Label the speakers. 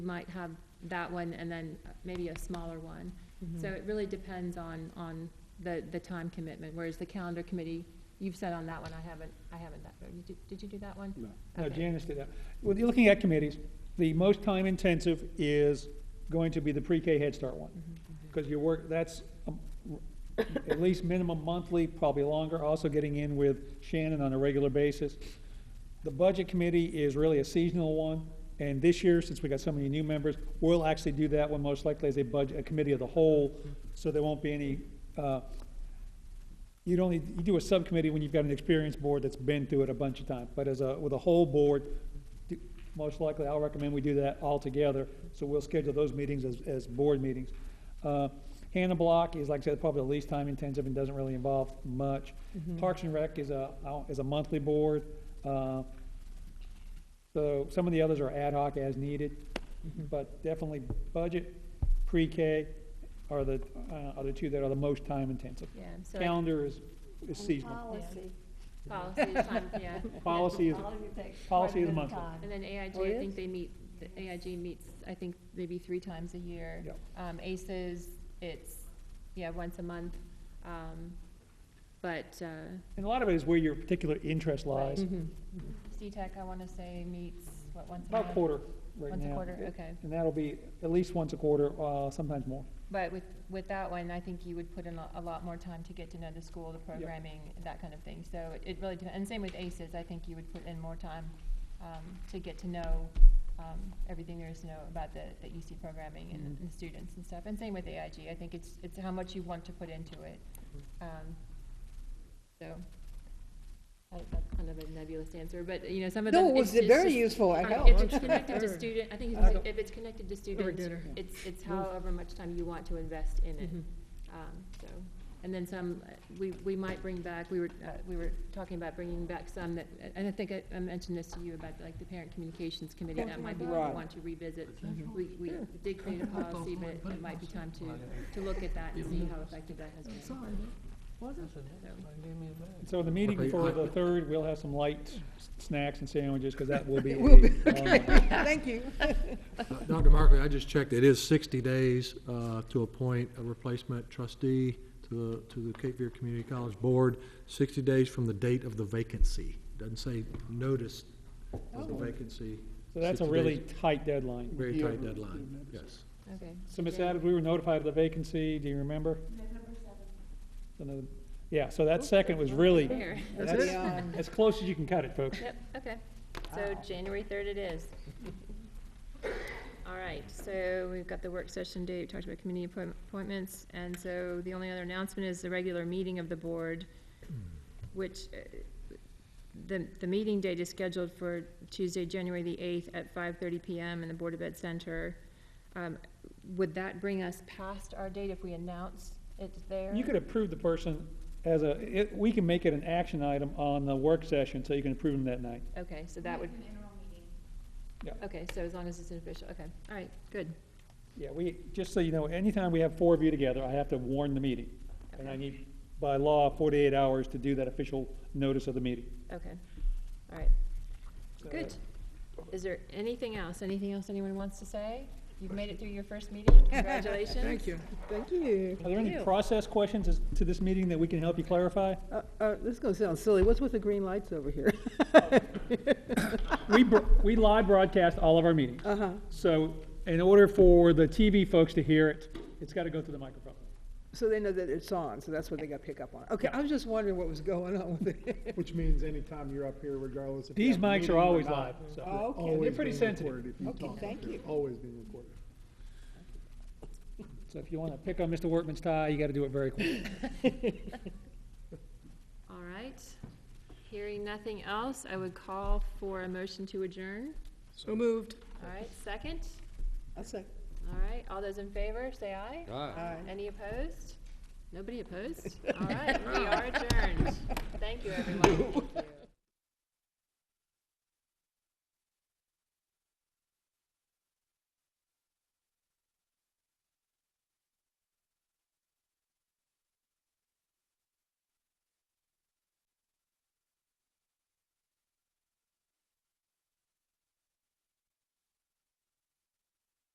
Speaker 1: might have that one and then maybe a smaller one. So
Speaker 2: Mm-hmm.
Speaker 1: it really depends on, on the, the time commitment, whereas the calendar committee, you've said on that one, I haven't, I haven't that, you did, did you do that one?
Speaker 3: No, No,
Speaker 1: Okay.
Speaker 3: Janice did that. When you're looking at committees, the most time intensive is going to be the pre-K Head Start one. Because you work, that's um, r- at least minimum monthly, probably longer, also getting in with Shannon on a regular basis. The budget committee is really a seasonal one, and this year, since we got so many new members, we'll actually do that one most likely as a budget, a committee of the whole, so there won't be any, uh, you'd only, you do a subcommittee when you've got an experienced board that's been through it a bunch of times. But as a, with a whole board, d- most likely, I'll recommend we do that all together. So we'll schedule those meetings as, as board meetings. Uh, Hannah Block is, like I said, probably the least time intensive and doesn't really involve much.
Speaker 1: Mm-hmm.
Speaker 3: Parks and Rec is a, is a monthly board. Uh, So some of the others are ad hoc as needed, Mm-hmm. but definitely budget, pre-K are the, uh, are the two that are the most time intensive.
Speaker 1: Yeah, so like
Speaker 3: Calendar is, is seasonal.
Speaker 2: Policy.
Speaker 1: policy is time, yeah.
Speaker 3: Policy is,
Speaker 2: All of it takes
Speaker 3: policy
Speaker 2: quite a
Speaker 3: is
Speaker 2: bit
Speaker 3: monthly.
Speaker 2: time.
Speaker 1: And then AIG,
Speaker 2: Oh,
Speaker 1: I
Speaker 2: yeah?
Speaker 1: think they meet, the AIG meets, I think, maybe three times a year.
Speaker 3: Yep.
Speaker 1: Um, ACES, it's, yeah, once a month, um, but, uh,
Speaker 3: and a lot of it is where your particular interest lies,
Speaker 1: Mm-hmm. C-Tech, E I want to say, meets, what, once a month?
Speaker 3: about a quarter right now.
Speaker 1: Once a quarter, okay.
Speaker 3: And that'll be at least once a quarter, uh, sometimes more.
Speaker 1: But with, with that one, I think you would put in a a lot more time to get to know the school, the programming, that kind of thing. So it- it really, depends. and same with ACES, I think you would put in more time um, to get to know um, everything there is to know about the, the EC programming and
Speaker 4: Mm-hmm.
Speaker 1: the- and the students and stuff. And same with AIG, I think it's, it's how much you want to put into it.
Speaker 4: Mm-hmm.
Speaker 1: Um, So, I- that's kind of a nebulous answer, but, you know, some of them.
Speaker 4: No, it was
Speaker 1: it's just-
Speaker 4: very
Speaker 1: just-
Speaker 4: useful, I
Speaker 1: um,
Speaker 4: know.
Speaker 1: If it's connected to student, I think it's-
Speaker 3: Sure.
Speaker 1: if it's connected to students,
Speaker 4: dinner.
Speaker 1: it's, it's however much time you want to invest in it. Um, So, and then some, uh, we, we might bring back, we were, uh, we were talking about bringing back some that, and I think I I mentioned this to you about like the Parent Communications Committee, that might be one we
Speaker 4: Right.
Speaker 1: want to revisit. We, we did create a policy, but it might be time to, to look at that and see how effective that has been.
Speaker 3: And So the meeting for the third, we'll have some light s- snacks and sandwiches, because that will be.
Speaker 4: It will be,
Speaker 3: a um, long one.
Speaker 4: Thank you.
Speaker 5: Dr. Markley, I just checked, it is 60 days uh, to appoint a replacement trustee to the, to the Cape Fear Community College Board, 60 days from the date of the vacancy. Doesn't say notice of the vacancy.
Speaker 3: Oh. So that's a
Speaker 5: 60
Speaker 3: really
Speaker 5: days,
Speaker 3: tight deadline.
Speaker 5: Very tight deadline, yes.
Speaker 1: Okay.
Speaker 3: So Ms. Adams, we were notified of the vacancy, do you remember? November seventh. Yeah, so that second was really,
Speaker 1: There.
Speaker 3: that's
Speaker 4: Beyond-
Speaker 3: as close as you can cut it, folks.
Speaker 1: Yep, okay. So January third it is. All right, so we've got the work session date, we talked about committee appoint- appointments, and so the only other announcement is the regular meeting of the board, which, uh, the, the meeting date is scheduled for Tuesday, January the eighth at five thirty PM in the Board of Ed Center. Um, Would that bring us past our date if we announce it's there?
Speaker 3: You could approve the person as a, it, we can make it an action item on the work session, so you can approve them that night.
Speaker 1: Okay, so that would.
Speaker 3: Yeah.
Speaker 1: Okay, so as long as it's an official, okay, all right, good.
Speaker 3: Yeah, we, just so you know, anytime we have four of you together, I have to warn the meeting. And I need, by law, forty-eight hours to do that official notice of the meeting.
Speaker 1: Okay, all right, good. Is there anything else, anything else anyone wants to say? You've made it through your first meeting, congratulations. Thank you.
Speaker 2: Thank you.
Speaker 3: Are there any process questions as- to this meeting that we can help you clarify?
Speaker 2: Uh, uh, this is gonna sound silly, what's with the green lights over here?
Speaker 3: We, bro- we live broadcast all of our meetings.
Speaker 2: Uh-huh,
Speaker 3: So in order for the TV folks to hear it, it's gotta go through the microphone.
Speaker 2: so they know that it's on, so that's what they gotta pick up on. Okay, I was just wondering what was going on with it.
Speaker 6: Which means anytime you're up here, regardless if. you
Speaker 3: These
Speaker 6: have a
Speaker 3: mics
Speaker 6: meeting
Speaker 3: are
Speaker 6: or
Speaker 3: always
Speaker 6: not,
Speaker 3: live, so.
Speaker 2: Oh, okay.
Speaker 6: always
Speaker 3: They're pretty
Speaker 6: being
Speaker 3: sensitive.
Speaker 6: recorded if you
Speaker 2: Okay,
Speaker 6: talk up
Speaker 2: thank
Speaker 6: here,
Speaker 2: you.
Speaker 6: Always being recorded.
Speaker 3: So if you wanna pick on Mr. Workman's tie, you gotta do it very quickly.
Speaker 1: All right, hearing nothing else, I would call for a motion to adjourn.
Speaker 2: So moved.
Speaker 1: All right, second,
Speaker 2: I'll say,
Speaker 1: all right, all those in favor, say aye.
Speaker 2: aye.
Speaker 1: Any opposed? Nobody opposed? All right, we are adjourned. Thank you, everyone. Thank you.